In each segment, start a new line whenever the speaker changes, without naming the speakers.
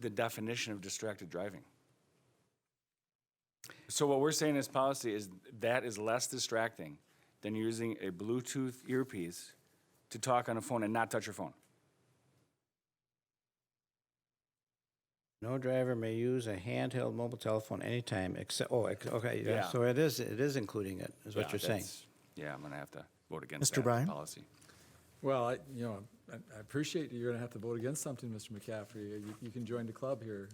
the definition of distracted driving. So what we're saying as policy is that is less distracting than using a Bluetooth earpiece to talk on a phone and not touch your phone.
No driver may use a handheld mobile telephone anytime except, oh, ex- okay, yeah,
Yeah.
so it is, it is including it, is what
Yeah,
you're saying.
that's- Yeah, I'm gonna have to vote against
Mr.
that
Bryan?
policy.
Well, I, you know, I I appreciate you're going to have to vote against something, Mr. McCaffrey. You, you can join the club here.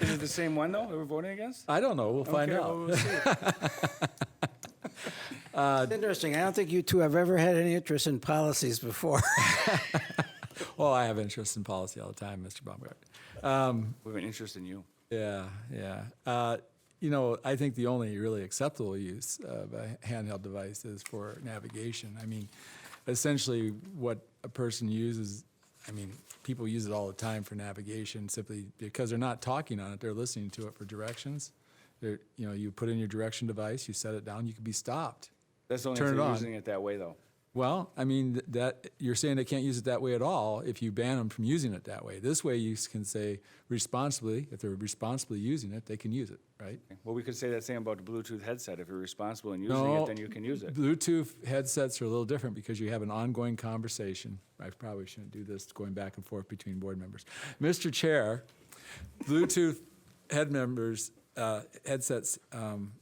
Is it the same one though that we're voting against?
Oh, I don't know. We'll find
Okay,
out.
well, we'll see.
It's Uh, interesting, I don't think you two have ever had any interest in policies before.
Well, I have interest in policy all the time, Mr. Baumgart.
We have an interest in you.
Yeah, yeah. Uh, you know, I think the only really acceptable use of a handheld device is for navigation. I mean, essentially, what a person uses, I mean, people use it all the time for navigation simply because they're not talking on it, they're listening to it for directions. They're, you know, you put in your direction device, you set it down, you could be stopped.
That's the only
Turn
thing
it on.
using it that way though.
Well, I mean th- that you're saying they can't use it that way at all if you ban them from using it that way. This way, you s- can say responsibly if they're responsibly using it, they can use it, right?
Well, we could say that same about the Bluetooth headset. If you're responsible in using it,
No,
then you can use it.
Bluetooth headsets are a little different because you have an ongoing conversation. I probably shouldn't do this going back and forth between board members. Mr. Chair, Bluetooth head members uh, headsets um,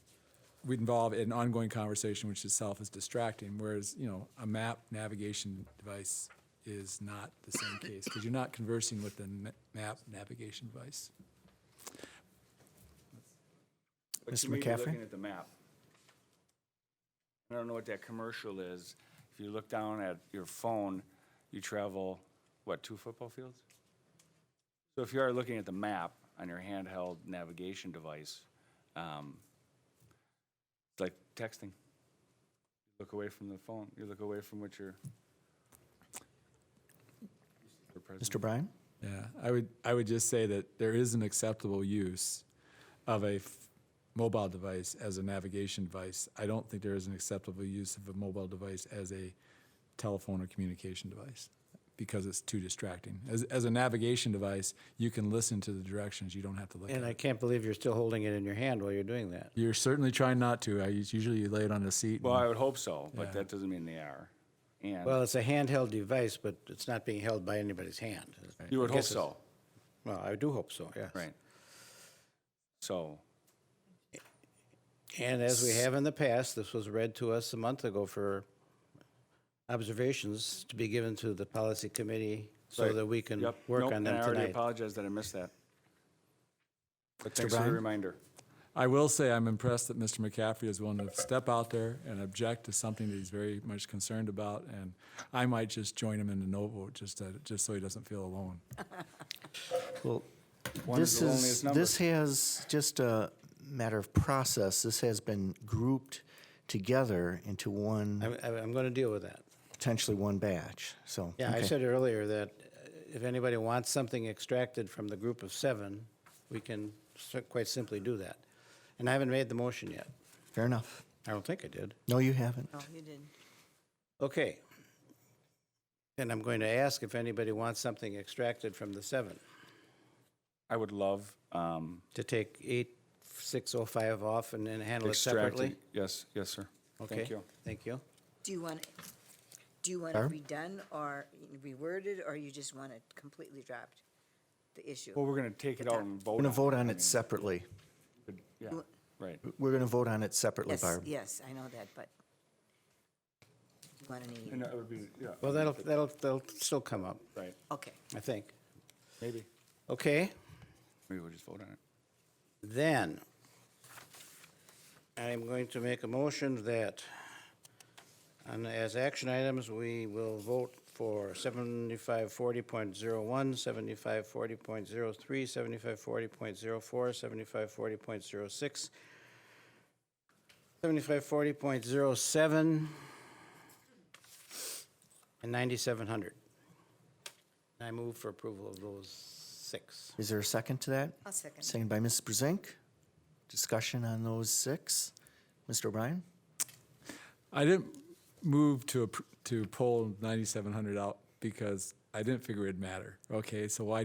would involve an ongoing conversation, which itself is distracting. Whereas you know a map navigation device is not the same case because you're not conversing with the ma- map navigation device.
But
Mr.
you may be
McCaffrey?
Looking at the map. I don't know what that commercial is. If you look down at your phone, you travel, what, two football fields? So if you are looking at the map on your handheld navigation device, um, it's like texting. Look away from the phone, you look away from what you're. your presence.
Mr. Bryan?
Yeah, I would, I would just say that there is an acceptable use of a f- mobile device as a navigation device. I don't think there is an acceptable use of a mobile device as a telephone or communication device because it's too distracting. As, as a navigation device, you can listen to the directions. You don't have to look
And
at
I
it.
can't believe you're still holding it in your hand while you're doing that.
You're certainly trying not to. I us- usually you lay it on a seat.
Well,
and-
I would hope so, but
Yeah.
that doesn't mean they are.
Well,
And
it's a handheld device, but it's not being held by anybody's hand.
you would
I
hope
guess it's-
so,
Well, I do hope so, yes.
right? So.
And as we have in the past, this was read to us a month ago for observations to be given to the policy committee so
Right.
that we can
Yep.
work
Nope,
on them
And I already
tonight.
apologize that I missed that. But thanks for the
Brown?
reminder.
I will say I'm impressed that Mr. McCaffrey is willing to step out there and object to something that he's very much concerned about, and I might just join him in the no vote just to, just so he doesn't feel alone.
Well,
One is
this
the
is,
loneliest number.
this has, just a matter of process, this has been grouped together into one,
I'm, I'm going to deal with that.
potentially one batch, so.
Yeah, I
okay.
said earlier that uh, if anybody wants something extracted from the group of seven, we can s- quite simply do that. And I haven't made the motion yet.
Fair enough.
I don't think I did.
No, you haven't.
No, you didn't.
Okay. And I'm going to ask if anybody wants something extracted from the seven
I would love um,
to take eight, six oh five off and then handle it separately.
extracting. Yes, yes, sir.
Okay.
Thank you.
Thank you.
Do you want, do you want it redone or reworded, or you just want it completely dropped, the issue?
Well, we're going to take it out and vote.
We're going
on
to
it.
vote
I
on
mean,
it separately.
good- Yeah,
You-
right.
We're going to vote on it separately,
Yes,
Barb.
yes, I know that, but you want any,
And that would be, yeah,
Well, that'll, that'll, that'll still come up,
right,
okay.
I think.
maybe.
Okay,
Maybe we'll just vote on it.
then, I'm going to make a motion that, on as action items, we will vote for 7540.01, 7540.03, 7540.04, 7540.06, 7540.07, and 9700. And I move for approval of those six.
Is there a second to that?
I'll second.
Second by Mrs. Brusink. Discussion on those six. Mr. O'Brien?
I didn't move to, appr- to pull 9,700 out because I didn't figure it'd matter. Okay, so why